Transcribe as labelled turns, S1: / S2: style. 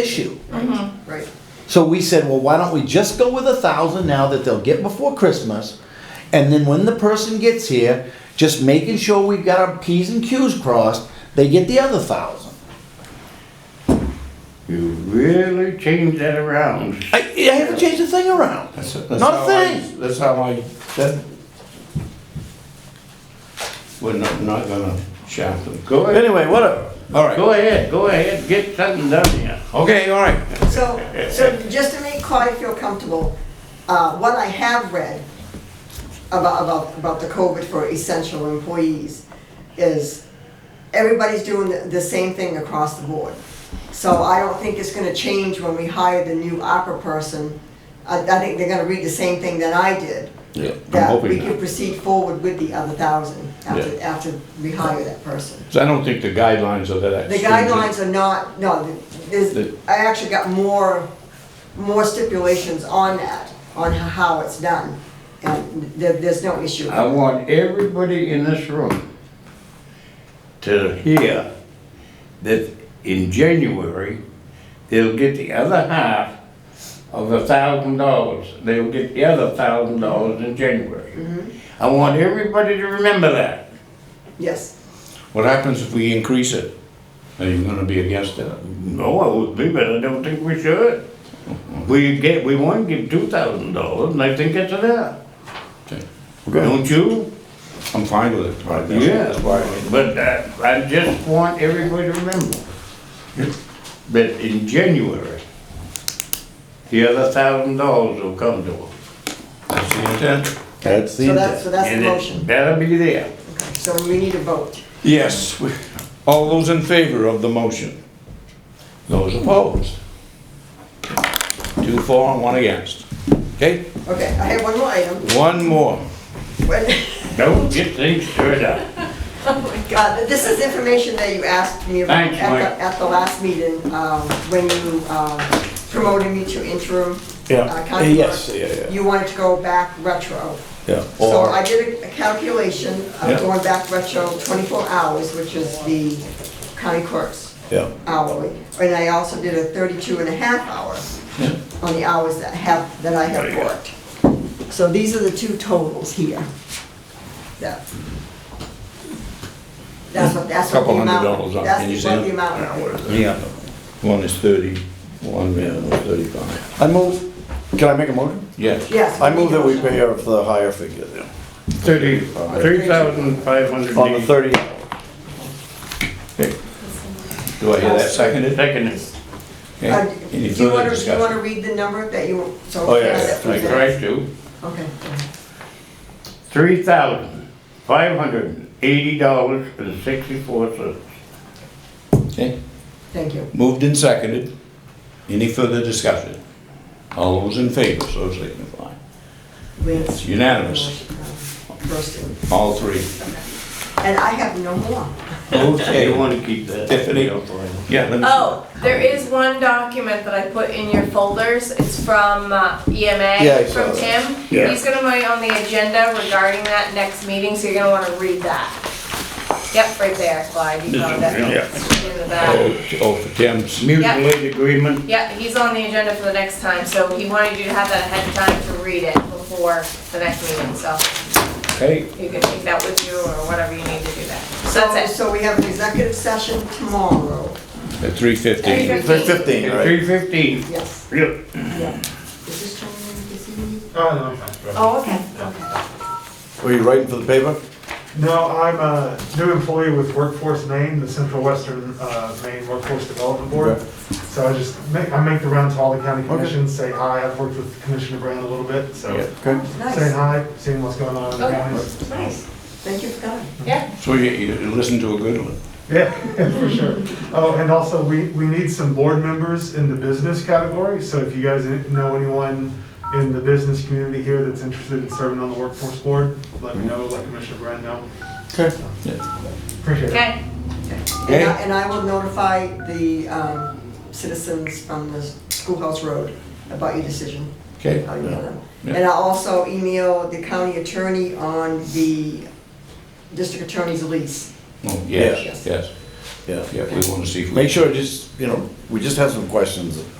S1: issue.
S2: Right.
S1: So we said, well, why don't we just go with a thousand now that they'll get before Christmas? And then when the person gets here, just making sure we've got our P's and Q's crossed, they get the other thousand.
S3: You really changed that around.
S1: I, I haven't changed a thing around.
S3: That's, that's
S1: Not a
S3: how
S1: thing.
S3: I, that's how I. That, we're not, not gonna shaft them. Go ahead.
S1: Anyway, whatever.
S3: All right. Go ahead. Go ahead. Get something done here.
S1: Okay, all right.
S2: So, so just to make Claudia feel comfortable, uh, what I have read about, about, about the COVID for essential employees is everybody's doing the- the same thing across the board. So I don't think it's gonna change when we hire the new opera person. I, I think they're gonna read the same thing that I did.
S3: Yeah. I'm
S2: That we
S3: hoping
S2: could
S3: not.
S2: proceed forward with the other thousand after,
S3: Yeah.
S2: after we hire that person.
S3: 'Cause I don't think the guidelines are that.
S2: The
S3: stringent.
S2: guidelines are not, no, there's,
S3: The-
S2: I actually got more, more stipulations on that, on how it's done. And there, there's no issue.
S3: I want everybody in this room to hear that in January, they'll get the other half of the thousand dollars. They'll get the other thousand dollars in January. I want everybody to remember that.
S2: Yes,
S3: What happens if we increase it? Are you gonna be against that? No, I would be, but I don't think we should. We get, we want to give two thousand dollars, and I think it's enough. Don't you?
S4: I'm fine with it. right now.
S3: Yeah, but uh, I just want everybody to remember that in January, the other thousand dollars will come to them.
S4: That's the intent?
S1: That's the
S2: so that's, so
S1: intent.
S2: that's the
S3: And it
S2: motion.
S3: better be there.
S2: Okay, So we need a vote.
S4: Yes. we- All those in favor of the motion? Those opposed? Two for and one against. Okay,
S2: Okay, I have one more item. Oh
S4: one more.
S2: When-
S3: Don't get things stirred up.
S2: Uh, This is information that you asked me about
S3: Thanks,
S2: at
S3: Mike.
S2: the, at the last meeting, um, when you um, promoted me to interim.
S4: Yeah.
S2: uh, county
S4: Yes,
S2: clerk.
S4: yeah, yeah.
S2: You wanted to go back retro.
S4: Yeah.
S2: So
S4: Or,
S2: I did a calculation
S4: Yeah.
S2: of going back retro 24 hours, which is the county clerk's
S4: yeah,
S2: hourly. And I also did a 32 and a half hour on the hours that have, that I have worked. So these are the two totals here. That- That's what, that's what the
S4: Couple hundred
S2: amount.
S4: dollars on it, can you see
S2: That's what
S4: it?
S2: the amount.
S4: yeah. One is thirty, one man was thirty-five.
S1: I move, can I make a motion?
S4: Yes.
S2: Yes.
S1: I move that we pay her for the higher figure
S3: Thirty, three thousand five hundred
S1: on the
S3: eighty.
S1: thirty.
S4: Do I hear that seconded?
S3: Second is,
S4: Okay.
S2: Uh, Do
S4: Any
S2: you
S4: further
S2: want to, you want
S4: discussion?
S2: to read the number that you, so.
S1: Oh, yeah, yeah,
S3: I tried to,
S2: Okay. go ahead.
S3: three thousand five hundred eighty dollars and sixty-four cents.
S4: Okay,
S2: Thank you.
S4: moved and seconded. Any further discussion? All those in favor, so signify.
S2: It's
S4: unanimous. All three.
S2: And I have no more.
S3: You
S4: Okay.
S3: wanna keep that?
S4: Tiffany? Yeah, let me.
S5: Oh, there is one document that I put in your folders. It's from uh,
S1: Yeah, I
S5: EMA,
S1: saw
S5: from
S1: that.
S5: Tim.
S4: Yeah.
S5: He's gonna be on the agenda regarding that next meeting, so you're gonna wanna read that. Yep, right there, Clyde, you
S3: This
S5: found
S3: is-
S5: it.
S3: yeah.
S5: It's in the back.
S4: Oh, t- oh, for Tim's.
S3: Mutual aid agreement,
S5: Yeah, he's on the agenda for the next time, so he wanted you to have that ahead of time to read it before the next meeting, so
S4: Okay,
S5: you can take that with you or whatever you need to do that. So that's it.
S2: So we have an executive session tomorrow,
S4: at three fifteen.
S1: Fifteen, all right.
S3: three fifteen.
S2: yes.
S3: Yep.
S2: Is this Tony Gizzi?
S6: Oh, no, I'm fine.
S2: Oh, okay, okay.
S1: Were you writing for the paper?
S6: No, I'm a new employee with Workforce Maine, the Central Western uh, Maine Workforce Development Board.
S1: Okay.
S6: So I just make, I make the rounds to all the county
S1: Okay.
S6: commissions, say hi. I've worked with Commissioner Brand a little bit, so
S4: Yeah.
S1: Okay.
S2: Nice,
S6: saying hi, seeing what's going on in the
S5: Okay.
S6: counties.
S5: Nice,
S2: thank you for coming.
S5: yeah.
S4: So you, you listen to a good one.
S6: Yeah, for sure. Oh, and also, we, we need some board members in the business category, so if you guys know anyone in the business community here that's interested in serving on the workforce board, let me know, let Commissioner Brand know.
S1: Okay.
S6: Appreciate it.
S5: Okay,
S2: And I, and I will notify the um, citizens from the Schoolhouse Road about your decision.
S4: Okay.
S2: I'll email them.
S4: Yeah.
S2: And I'll also email the county attorney on the district attorney's lease.
S4: Oh,
S1: Yeah.
S4: yes, yes.
S1: Yeah.
S4: Yeah, we want to see. if we-
S1: Make sure, just, you know,
S4: we just have some questions